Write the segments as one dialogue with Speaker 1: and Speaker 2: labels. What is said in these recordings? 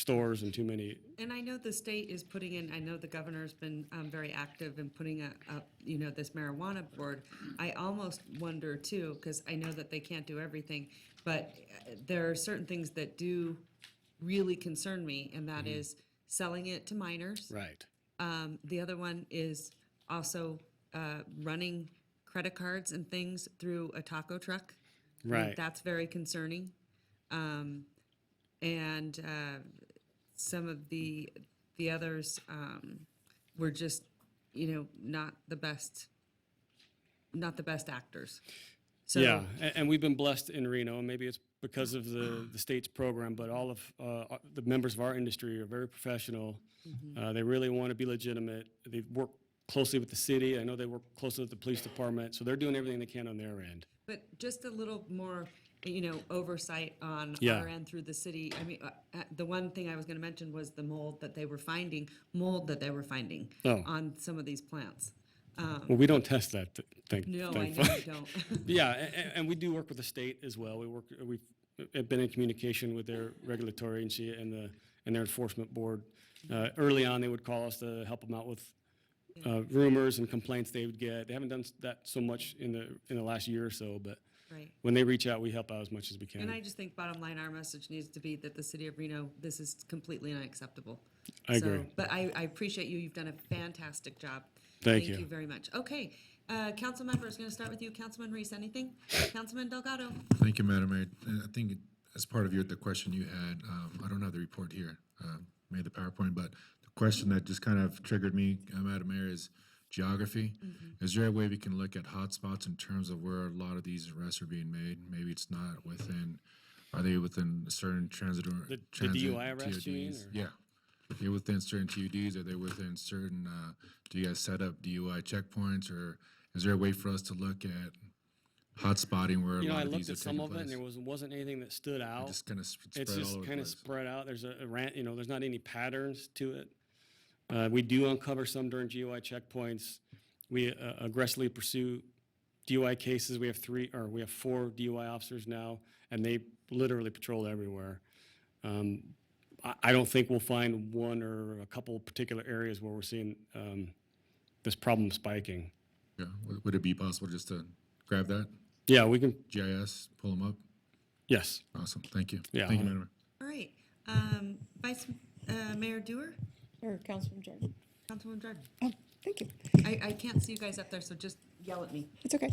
Speaker 1: stores and too many.
Speaker 2: Mm-hmm. And I know the state is putting in, I know the governor's been um, very active in putting up, up, you know, this marijuana board. I almost wonder too, because I know that they can't do everything, but uh, there are certain things that do really concern me, and that is selling it to minors.
Speaker 1: Right.
Speaker 2: Um, The other one is also uh, running credit cards and things through a taco truck. I think
Speaker 1: Right.
Speaker 2: That's very concerning. Um, And uh, some of the, the others um, were just, you know, not the best, not the best actors. So,
Speaker 1: Yeah, and, and we've been blessed in Reno, and maybe it's because of the, the state's program, but all of, uh, uh, the members of our industry are very professional.
Speaker 2: Mm-hmm.
Speaker 1: Uh, they really want to be legitimate. They work closely with the city. I know they work closely with the police department, so they're doing everything they can on their end.
Speaker 2: But just a little more, you know, oversight on
Speaker 1: Yeah.
Speaker 2: our end through the city. I mean, uh, uh, the one thing I was gonna mention was the mold that they were finding, mold that they were finding
Speaker 1: Oh.
Speaker 2: on some of these plants. Um,
Speaker 1: Well, we don't test that, th- thank,
Speaker 2: Uh-huh. No, I know
Speaker 1: thankfully.
Speaker 2: you don't.
Speaker 1: Yeah, and, and we do work with the state as well. We work, we've uh, been in communication with their regulatory agency and the, and their enforcement board. Uh, Early on, they would call us to help them out with uh, rumors and complaints they would get. They haven't done s- that so much in the, in the last year or so, but
Speaker 2: Right.
Speaker 1: when they reach out, we help out as much as we
Speaker 2: And
Speaker 1: can.
Speaker 2: I just think bottom line, our message needs to be that the city of Reno, this is completely unacceptable.
Speaker 1: I
Speaker 2: So-
Speaker 1: agree.
Speaker 2: But I, I appreciate you. You've done a fantastic job.
Speaker 1: Thank
Speaker 2: Thank
Speaker 1: you.
Speaker 2: you very much. Okay, uh, council members, gonna start with you. Councilman Reese, anything? Councilman Delgado?
Speaker 3: Thank you, Madam Mayor. And I think as part of your, the question you had, um, I don't have the report here, uh, made the PowerPoint, but the question that just kind of triggered me, uh, Madam Mayor, is geography. Is there a way we can look at hotspots in terms of where a lot of these arrests are being made? Maybe it's not within, are they within a certain transit or?
Speaker 1: The- the
Speaker 3: transit
Speaker 1: DUI arrests you mean,
Speaker 3: TODs?
Speaker 1: or-
Speaker 3: Yeah. If you're within certain TUDs, are they within certain, uh, do you guys set up DUI checkpoints or is there a way for us to look at hotspotting where a
Speaker 1: You know, I
Speaker 3: lot of
Speaker 1: looked
Speaker 3: these are
Speaker 1: at some
Speaker 3: taking
Speaker 1: of it, and
Speaker 3: place?
Speaker 1: there was, wasn't anything that stood out.
Speaker 3: Just kind of spread
Speaker 1: It's
Speaker 3: all
Speaker 1: just
Speaker 3: over the
Speaker 1: kind of
Speaker 3: place.
Speaker 1: spread out. There's a a ran you know, there's not any patterns to it. Uh, we do uncover some during GUI checkpoints. We uh, aggressively pursue DUI cases. We have three, or we have four DUI officers now, and they literally patrol everywhere. Um, I, I don't think we'll find one or a couple particular areas where we're seeing um, this problem spiking.
Speaker 3: Yeah, would, would it be possible just to grab that
Speaker 1: Yeah, we can.
Speaker 3: GIS, pull them up?
Speaker 1: Yes.
Speaker 3: Awesome, thank you.
Speaker 1: Yeah,
Speaker 3: Thank you,
Speaker 1: I'll-
Speaker 3: Madam Mayor.
Speaker 2: All right, um, Vice, uh, Mayor Dewar,
Speaker 4: Or Councilman Jordan.
Speaker 2: Councilwoman Jordan.
Speaker 4: Oh, thank you.
Speaker 2: I, I can't see you guys up there, so just yell at me.
Speaker 4: It's okay.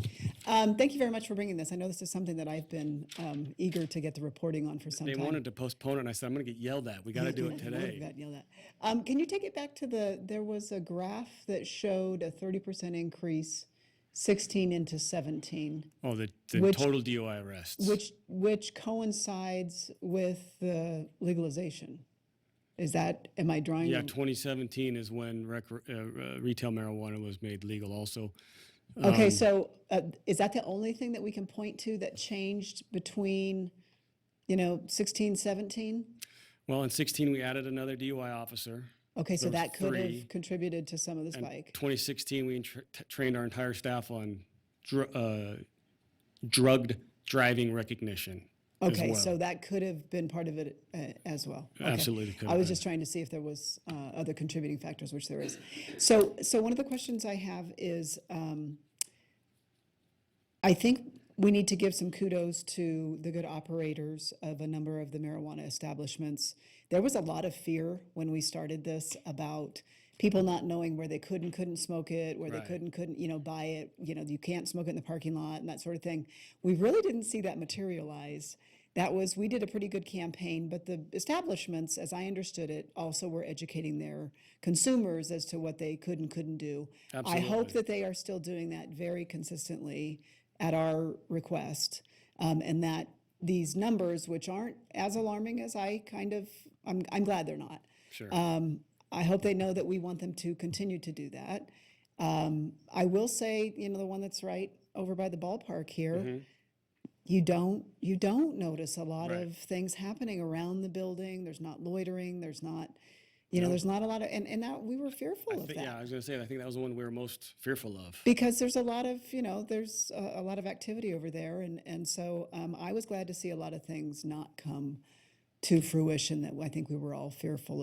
Speaker 4: Um, thank you very much for bringing this. I know this is something that I've been, um, eager to get the reporting on for some
Speaker 1: They
Speaker 4: time.
Speaker 1: wanted to postpone it, and I said, I'm going to get yelled at. We got to do it today.
Speaker 4: Got yelled at. Um, can you take it back to the, there was a graph that showed a thirty percent increase, sixteen into seventeen,
Speaker 1: Oh, the, the
Speaker 4: Which-
Speaker 1: total DUI arrests.
Speaker 4: which, which coincides with the legalization. Is that, am I drawing?
Speaker 1: Yeah,
Speaker 4: the-
Speaker 1: 2017 is when rec- uh, uh, retail marijuana was made legal also. Um,
Speaker 4: Okay, so uh, is that the only thing that we can point to that changed between, you know, 16, 17?
Speaker 1: Well, in 16, we added another DUI officer.
Speaker 4: Okay, so
Speaker 1: There was
Speaker 4: that could
Speaker 1: three,
Speaker 4: have contributed to some of the
Speaker 1: And
Speaker 4: spike.
Speaker 1: 2016, we tra- t- trained our entire staff on dr- uh, drugged driving recognition. as
Speaker 4: Okay,
Speaker 1: well.
Speaker 4: so that could have been part of it uh, as well. Okay.
Speaker 1: Absolutely could
Speaker 4: I
Speaker 1: have
Speaker 4: was
Speaker 1: been.
Speaker 4: just trying to see if there was uh, other contributing factors, which there is. So, so one of the questions I have is, um, I think we need to give some kudos to the good operators of a number of the marijuana establishments. There was a lot of fear when we started this about people not knowing where they could and couldn't smoke it, where they
Speaker 1: Right.
Speaker 4: could and couldn't, you know, buy it, you know, you can't smoke it in the parking lot and that sort of thing. We really didn't see that materialize. That was, we did a pretty good campaign, but the establishments, as I understood it, also were educating their consumers as to what they could and couldn't do. I hope
Speaker 1: Absolutely.
Speaker 4: that they are still doing that very consistently at our request. Um, and that these numbers, which aren't as alarming as I kind of, I'm, I'm glad they're not.
Speaker 1: Sure.
Speaker 4: Um, I hope they know that we want them to continue to do that. Um, I will say, you know, the one that's right over by the ballpark here,
Speaker 1: Mm-hmm.
Speaker 4: you don't you don't notice a lot
Speaker 1: Right.
Speaker 4: of things happening around the building. There's not loitering. There's not, you know, there's not a lot of, and, and that we were fearful of
Speaker 1: Th-
Speaker 4: that
Speaker 1: yeah, I was going to say, I think that was the one we were most fearful of.
Speaker 4: because there's a lot of you know there's a, a lot of activity over there and and so um, i was glad to see a lot of things not come to fruition that I think we were all fearful of.